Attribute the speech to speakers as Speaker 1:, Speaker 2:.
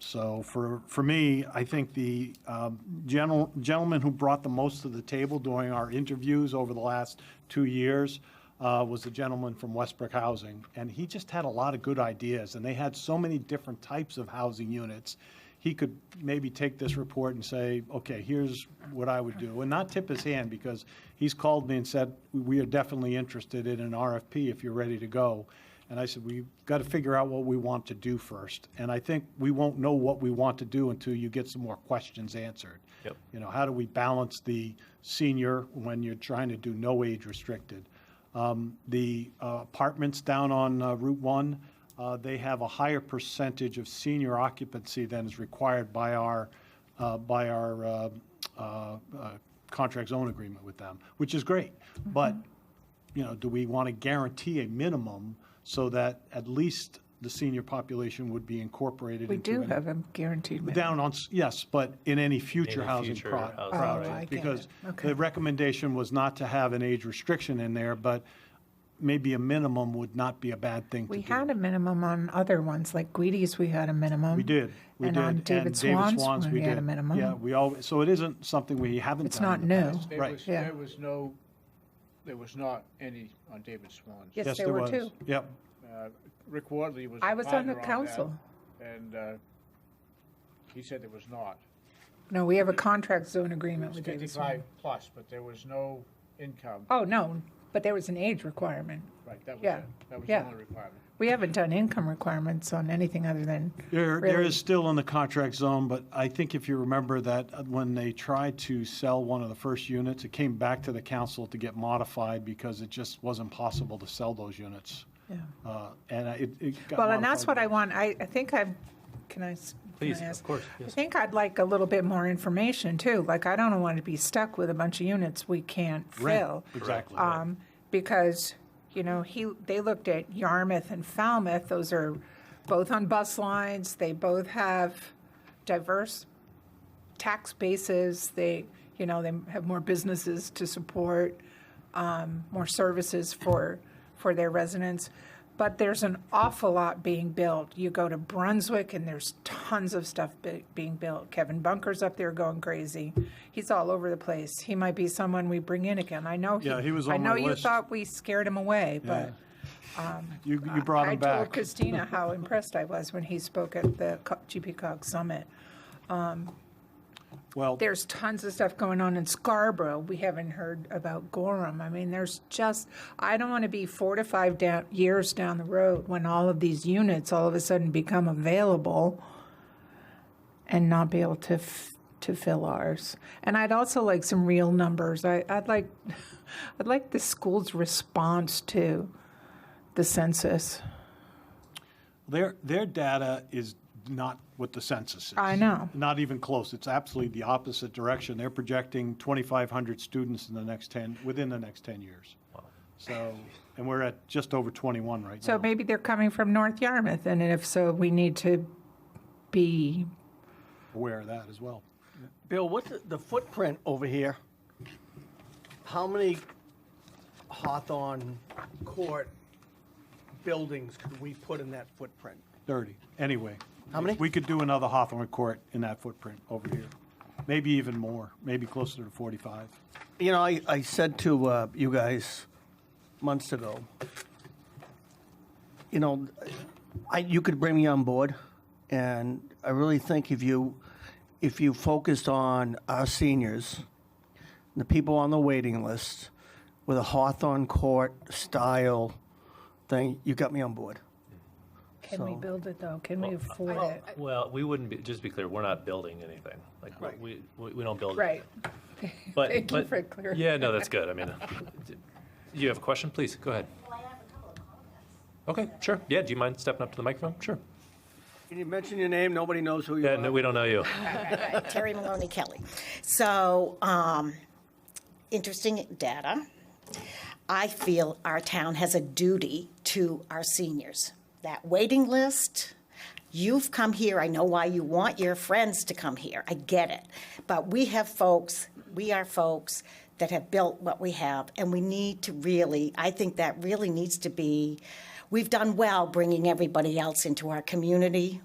Speaker 1: So for, for me, I think the um, gentle- gentleman who brought the most to the table during our interviews over the last two years uh, was a gentleman from Westbrook Housing, and he just had a lot of good ideas, and they had so many different types of housing units. He could maybe take this report and say, okay, here's what I would do, and not tip his hand, because he's called me and said, we are definitely interested in an RFP if you're ready to go. And I said, we've got to figure out what we want to do first. And I think we won't know what we want to do until you get some more questions answered.
Speaker 2: Yep.
Speaker 1: You know, how do we balance the senior when you're trying to do no age restricted? Um, The uh, apartments down on uh, Route 1, uh, they have a higher percentage of senior occupancy than is required by our, uh, by our uh, uh, uh, contract zone agreement with them, which is great. But you know, do we want to guarantee a minimum so that at least the senior population would be incorporated
Speaker 3: We
Speaker 1: into
Speaker 3: do
Speaker 1: any-
Speaker 3: have a guaranteed minimum.
Speaker 1: Down on, s- yes, but in any future
Speaker 2: Any
Speaker 1: housing
Speaker 2: future
Speaker 1: pro-
Speaker 2: housing
Speaker 3: Oh, I
Speaker 1: project.
Speaker 3: get
Speaker 1: Because
Speaker 3: it. Okay.
Speaker 1: the recommendation was not to have an age restriction in there, but maybe a minimum would not be a bad thing to do.
Speaker 3: We had a minimum on other ones, like Guidi's, we had a minimum.
Speaker 1: We did, we did.
Speaker 3: And on David Swan's, one, we had
Speaker 1: did.
Speaker 3: a minimum.
Speaker 1: Yeah, we all, so it isn't something we haven't
Speaker 3: It's
Speaker 1: done
Speaker 3: not
Speaker 1: in the
Speaker 3: new.
Speaker 1: past.
Speaker 4: There
Speaker 1: Right.
Speaker 4: was,
Speaker 3: Yeah.
Speaker 4: there was no, there was not any on David Swan's.
Speaker 3: Yes.
Speaker 1: Yes,
Speaker 3: there
Speaker 1: there
Speaker 3: were
Speaker 1: was.
Speaker 3: two.
Speaker 1: Yep.
Speaker 4: Uh, Rick Wardley was.
Speaker 3: I was on the
Speaker 4: partner
Speaker 3: council.
Speaker 4: that, And uh, he said there was not.
Speaker 3: No, we have a contract zone agreement
Speaker 4: It's
Speaker 3: with David Swan.
Speaker 4: fifty-five plus, but there was no income.
Speaker 3: Oh, no, but there was an age requirement.
Speaker 4: Right, that was
Speaker 3: yeah,
Speaker 4: it. That was
Speaker 3: yeah.
Speaker 4: the only requirement.
Speaker 3: We haven't done income requirements on anything other than,
Speaker 1: There, there
Speaker 3: Really?
Speaker 1: is still in the contract zone, but I think if you remember that uh, when they tried to sell one of the first units, it came back to the council to get modified because it just wasn't possible to sell those units.
Speaker 3: yeah.
Speaker 1: Uh, And I- it, it got
Speaker 3: Well, and that's
Speaker 1: modified.
Speaker 3: what I want, I, I think I've, can I? s- can
Speaker 2: Please,
Speaker 3: I ask?
Speaker 2: of course,
Speaker 3: I
Speaker 2: yes.
Speaker 3: think I'd like a little bit more information too, like I don't want to be stuck with a bunch of units we can't
Speaker 1: Right,
Speaker 3: fill.
Speaker 1: Exactly.
Speaker 3: um, because, you know, he, they looked at Yarmouth and Falmouth, those are both on bus lines, they both have diverse tax bases, they, you know, they have more businesses to support, um, more services for, for their residents. But there's an awful lot being built. You go to Brunswick and there's tons of stuff be- being built. Kevin Bunker's up there going crazy. He's all over the place. He might be someone we bring in again. I know.
Speaker 1: Yeah, he was on
Speaker 3: I know
Speaker 1: my
Speaker 3: you
Speaker 1: list.
Speaker 3: thought we scared him away, but.
Speaker 1: You, you brought
Speaker 3: I
Speaker 1: him
Speaker 3: told
Speaker 1: back.
Speaker 3: Christina how impressed I was when he spoke at the Co- GP Cog Summit.
Speaker 1: Well,
Speaker 3: There's tons of stuff going on in Scarborough. We haven't heard about Gorham. I mean, there's just, I don't want to be four to five down, years down the road when all of these units all of a sudden become available and not be able to f- to fill ours. And I'd also like some real numbers. I, I'd like, I'd like the school's response to the census.
Speaker 1: their, their data is not what the census is.
Speaker 3: I know.
Speaker 1: Not even close. It's absolutely the opposite direction. They're projecting 2,500 students in the next 10, within the next 10 years. So, and we're at just over 21 right now.
Speaker 3: So maybe they're coming from North Yarmouth, and if so, we need to be
Speaker 1: aware of that as well.
Speaker 5: Bill, what's the- the footprint over here? How many Hawthorne Court buildings could we put in that footprint?
Speaker 1: 30, anyway.
Speaker 5: How many?
Speaker 1: We could do another Hawthorne Court in that footprint over here. Maybe even more, maybe closer to 45.
Speaker 5: You know, I, I said to uh, you guys months ago, you know, I, you could bring me on board, and I really think if you if you focused on our seniors, the people on the waiting list, with a Hawthorne Court style thing, you got me on board.
Speaker 3: Can we
Speaker 5: So-
Speaker 3: build it, though? Can we afford it?
Speaker 2: Well, we wouldn't be, just be clear, we're not building anything. Like,
Speaker 5: Right.
Speaker 2: we, we we don't build.
Speaker 3: Right.
Speaker 2: But-
Speaker 3: Thank you
Speaker 2: but-
Speaker 3: for clarifying.
Speaker 2: Yeah, no, that's good. I mean, you have a question? Please, go ahead.
Speaker 6: Well, I have a couple of comments.
Speaker 2: Okay, sure. Yeah, do you mind stepping up to the microphone? Sure.
Speaker 5: Can you mention your name? Nobody knows who you
Speaker 2: Yeah,
Speaker 5: are.
Speaker 2: no, we don't know you.
Speaker 6: Terry Maloney Kelly. So, um, interesting data. I feel our town has a duty to our seniors. That waiting list, you've come here, I know why you want your friends to come here, I get it. But we have folks, we are folks that have built what we have, and we need to really, I think that really needs to be, we've done well bringing everybody else into our community.